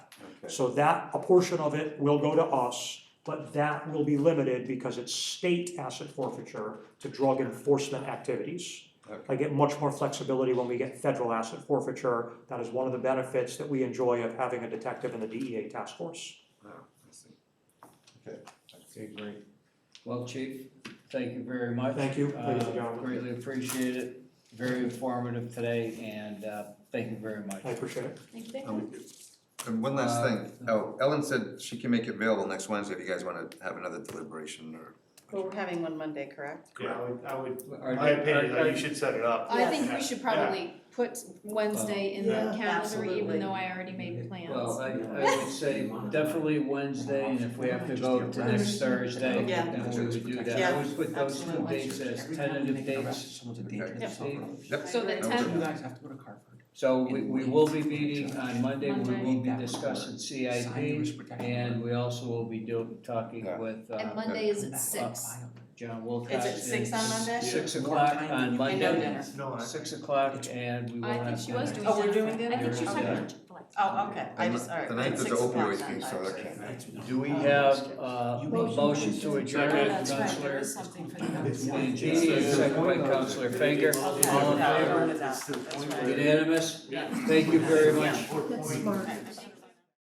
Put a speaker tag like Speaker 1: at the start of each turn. Speaker 1: So that, a portion of it will go to us, but that will be limited because it's state asset forfeiture to drug enforcement activities. I get much more flexibility when we get federal asset forfeiture. That is one of the benefits that we enjoy of having a detective in the DEA task force.
Speaker 2: Okay, great.
Speaker 3: Well, Chief, thank you very much.
Speaker 1: Thank you, ladies
Speaker 3: Uh,
Speaker 1: and gentlemen.
Speaker 3: Greatly appreciate it, very informative today, and uh, thank you very much.
Speaker 1: I appreciate it.
Speaker 2: Um, And one last thing,
Speaker 3: Uh,
Speaker 2: oh, Ellen said she can make it available next Wednesday if you guys wanna have another deliberation or.
Speaker 4: Well, we're having one Monday, correct?
Speaker 5: Yeah, I would, I would,
Speaker 3: Are-
Speaker 5: my opinion,
Speaker 3: are-
Speaker 5: that you should set it up.
Speaker 6: I think we
Speaker 5: Yes.
Speaker 6: should probably put Wednesday in
Speaker 4: Yeah,
Speaker 6: the calendar,
Speaker 4: absolutely.
Speaker 6: even though I already made
Speaker 3: Well, uh,
Speaker 6: plans.
Speaker 3: I I would say definitely Wednesday, and if we have to go to next Thursday,
Speaker 4: Yeah.
Speaker 3: then we would do that. I would put those two
Speaker 4: Absolutely.
Speaker 3: dates as tentative dates.
Speaker 2: Yep. Um,
Speaker 6: So the
Speaker 2: That was
Speaker 6: tenth,
Speaker 2: it.
Speaker 7: guys have to go to Carver.
Speaker 3: So we we will be meeting on Monday, we
Speaker 6: Monday.
Speaker 3: will be discussing CIP, and we also will be do, talking
Speaker 2: Yeah.
Speaker 3: with uh,
Speaker 6: and Monday is at six.
Speaker 3: John Wilcox.
Speaker 4: Is it six
Speaker 3: and
Speaker 4: on Monday?
Speaker 3: Six o'clock on
Speaker 4: I know
Speaker 3: Monday,
Speaker 4: dinner.
Speaker 5: No, I-
Speaker 3: six o'clock, and we will
Speaker 6: I
Speaker 3: have.
Speaker 6: think she was
Speaker 3: dinner.
Speaker 6: doing.
Speaker 4: Oh,
Speaker 6: dinner.
Speaker 4: we're doing dinner?
Speaker 6: I think she was talking
Speaker 3: Yeah.
Speaker 6: about.
Speaker 4: Oh, okay, I
Speaker 2: And
Speaker 4: just, all right.
Speaker 2: The ninth is the
Speaker 4: six o'clock
Speaker 2: opioid
Speaker 4: then,
Speaker 2: thing, so
Speaker 4: I
Speaker 2: that
Speaker 4: see.
Speaker 2: can't.
Speaker 3: Do we have uh, a
Speaker 7: You-
Speaker 3: motion to adjourn,
Speaker 6: Oh, that's right,
Speaker 3: Counselor?
Speaker 6: there is something for the.
Speaker 3: Leading second by Counselor Finger, all in
Speaker 4: Okay, yeah,
Speaker 3: favor?
Speaker 4: we're done, that's right. Oh,
Speaker 3: Unanimous? Thank you very much.
Speaker 6: That's smart.